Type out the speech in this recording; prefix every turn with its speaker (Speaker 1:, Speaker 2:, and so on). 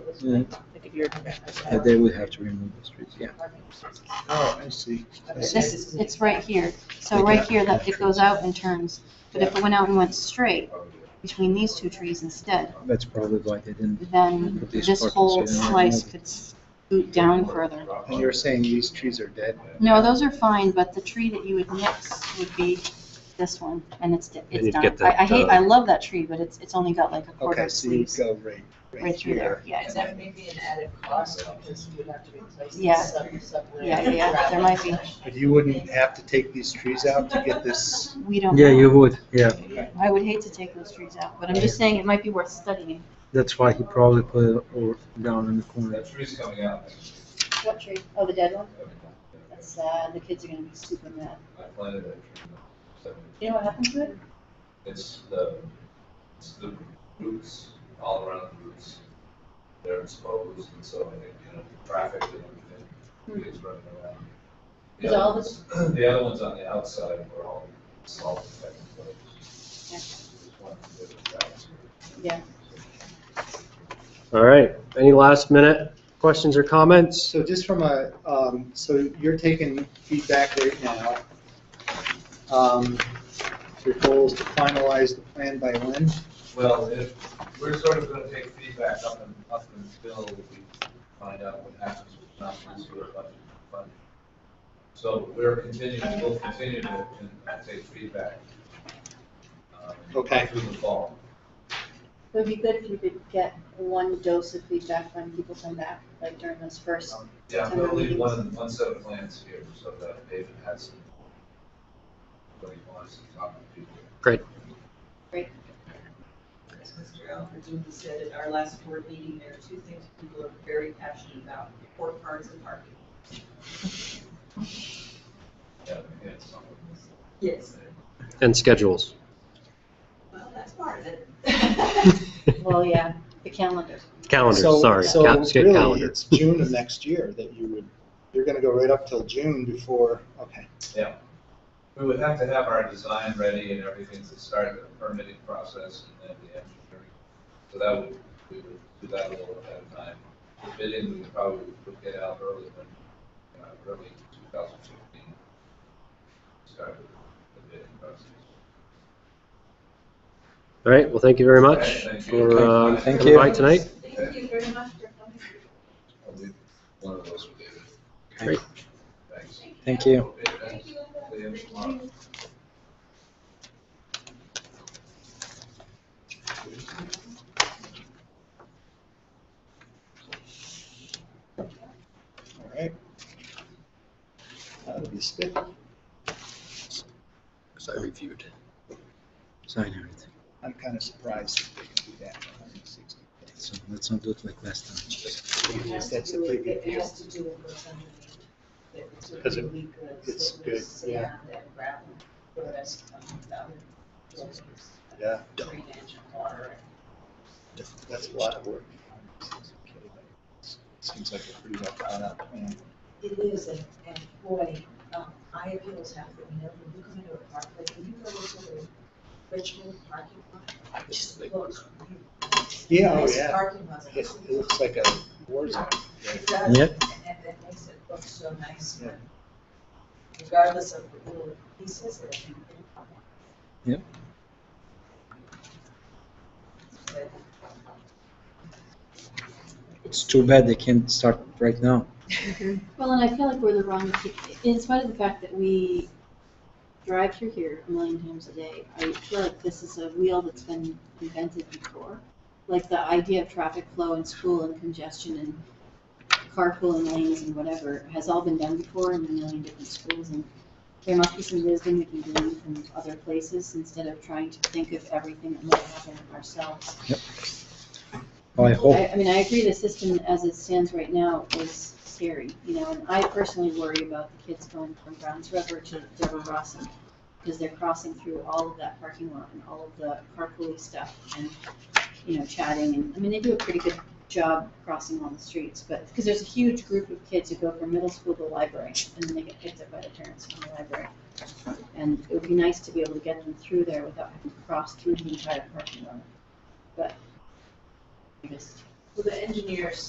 Speaker 1: Uh,
Speaker 2: Like if you're.
Speaker 1: They would have to remove the streets, yeah.
Speaker 3: Oh, I see. I
Speaker 4: This
Speaker 3: see.
Speaker 4: is, it's right here, so right here, that it goes out and turns, but if it went out and went straight between these two trees instead,
Speaker 1: That's probably why they didn't.
Speaker 4: then this whole slice could scoot down further.
Speaker 3: And you're saying these trees are dead?
Speaker 4: No, those are fine, but the tree that you would mix would be this one, and it's, di-
Speaker 5: And
Speaker 4: it's
Speaker 5: you'd
Speaker 4: done.
Speaker 5: get
Speaker 4: I, I hate,
Speaker 5: that,
Speaker 4: I love that tree, but it's, it's only got like a quarter
Speaker 3: Okay,
Speaker 4: of
Speaker 3: so you
Speaker 4: sleeves
Speaker 3: go right,
Speaker 4: right
Speaker 3: right
Speaker 4: through there,
Speaker 3: here.
Speaker 4: yeah.
Speaker 2: And that may be an added cost because you would have to replace the
Speaker 4: Yeah.
Speaker 2: sub- subway.
Speaker 4: Yeah, yeah, yeah, there might be,
Speaker 3: But you wouldn't have to take these trees out to get this,
Speaker 4: we don't
Speaker 1: Yeah, you
Speaker 4: know.
Speaker 1: would, yeah.
Speaker 4: I would hate to take those trees out, but I'm just saying it might be worth studying.
Speaker 1: That's why he probably put it all down in the corner.
Speaker 6: That tree's coming out.
Speaker 4: What tree? Oh, the dead one?
Speaker 6: I
Speaker 4: That's sad, the kids are gonna be super mad.
Speaker 6: planted that tree. So
Speaker 4: You know what happened to it?
Speaker 6: It's the, it's the roots, all around the roots. They're exposed and so, you know, the traffic and everything is running around. The
Speaker 4: Hmm. Is all
Speaker 6: other ones- The other ones on the outside were all salt affected. but it's just one of the different types.
Speaker 4: Yeah.
Speaker 5: All right, any last minute questions or comments?
Speaker 3: so just from a, um, so you're taking feedback right now. Um, Your goal is to finalize the plan by when?
Speaker 6: Well, if, we're sort of gonna take feedback up and, up until we find out what happens with not this year budget funding. So we're continuing, we'll continue to, and take feedback. um,
Speaker 3: Okay.
Speaker 6: Through the fall.
Speaker 7: It would be good if you could get one dose of feedback when people come back, like during those first.
Speaker 6: Yeah, I'm gonna leave one, one set of plans here so that David has some, what he wants to talk to people.
Speaker 2: As Mr. Alfredson said at our last board meeting, there are two things people are very passionate about, court cards and parking.
Speaker 6: Yeah, we had some
Speaker 2: Yes.
Speaker 5: And schedules.
Speaker 2: Well, that's part of it.
Speaker 4: Well, yeah, the calendar.
Speaker 5: Calendars,
Speaker 3: So-
Speaker 5: sorry. Cal-
Speaker 3: So
Speaker 5: get
Speaker 3: really,
Speaker 5: calendar.
Speaker 3: it's June of next year that you would, you're gonna go right up till June before, okay.
Speaker 6: We would have to have our design ready and everything to start the permitting process and then the engineering. So that would, we would do that a little ahead of time. The bidding, we probably would get out early when, uh, early two thousand fifteen. Start the bidding process.
Speaker 5: All right, well, thank you very much
Speaker 6: Okay, thank you.
Speaker 5: for, uh,
Speaker 1: Thank
Speaker 5: for
Speaker 1: you.
Speaker 5: the bite tonight.
Speaker 2: Thank you very much for coming.
Speaker 6: I'll do One of those with David.
Speaker 1: Great.
Speaker 6: Thanks.
Speaker 1: Thank you.
Speaker 6: Okay, thanks. See you tomorrow.
Speaker 3: All right. That'll be spit.
Speaker 1: Because I reviewed. Sign everything.
Speaker 3: I'm kind of surprised that they can do that. for 160.
Speaker 1: So let's not do it like last time.
Speaker 3: Because That's a pretty big
Speaker 2: It
Speaker 3: deal.
Speaker 2: has to do with what's underneath. That it's
Speaker 3: Because it-
Speaker 2: really good, so
Speaker 3: it's
Speaker 2: it
Speaker 3: good,
Speaker 2: was sand
Speaker 3: yeah.
Speaker 2: and gravel, whereas, um, the other was
Speaker 3: Yeah,
Speaker 2: drainage and water.
Speaker 3: that's a lot of work. Seems like a pretty well thought out plan.
Speaker 2: It is, and, and boy, um, I appeals happen, you know, when you come into a park, like when you go into the Richmond parking lot, it just looks.
Speaker 3: Yeah, oh
Speaker 2: nice
Speaker 3: yeah.
Speaker 2: Parking lot.
Speaker 3: It it looks like a war zone.
Speaker 2: It does,
Speaker 1: Yep.
Speaker 2: and that makes it look so nice,
Speaker 3: Yeah.
Speaker 2: regardless of the little pieces that you.
Speaker 1: Yep.
Speaker 2: But
Speaker 1: It's too bad they can't start right now.
Speaker 4: Well, and I feel like we're the wrong, in spite of the fact that we drive through here a million times a day, I feel like this is a wheel that's been invented before. Like the idea of traffic flow and school and congestion and carpooling lanes and whatever has all been done before in a million different schools. And there must be some wisdom we can glean from other places instead of trying to think of everything that might happen ourselves.
Speaker 1: Oh, I hope.
Speaker 4: I, I mean, I agree the system as it stands right now is scary, you know, and I personally worry about the kids going from Browns River to Deborah Rossum. Because they're crossing through all of that parking lot and all of the carpooling stuff and, you know, chatting and, I mean, they do a pretty good job crossing all the streets, but, because there's a huge group of kids who go from middle school to library and then they get picked up by the parents from the library. And it would be nice to be able to get them through there without having to cross through the entire parking lot. But I just Well, the engineers